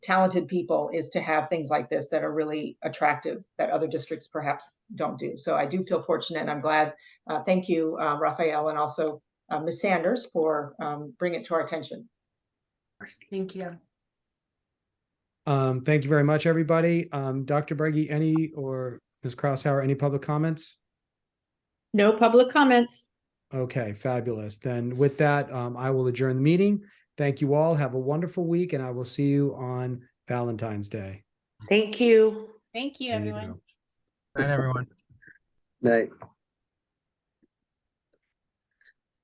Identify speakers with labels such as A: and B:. A: talented people is to have things like this that are really attractive that other districts perhaps don't do. So I do feel fortunate and I'm glad. Uh, thank you, uh, Raphael, and also uh, Ms. Sanders for um, bringing it to our attention.
B: Thank you.
C: Um, thank you very much, everybody. Um, Dr. Breggy, any or Ms. Crosshauer, any public comments?
D: No public comments.
C: Okay, fabulous. Then with that, um, I will adjourn the meeting. Thank you all. Have a wonderful week and I will see you on Valentine's Day.
E: Thank you.
D: Thank you,
C: There you
D: everyone.
C: go.
F: Night, everyone.
G: Night.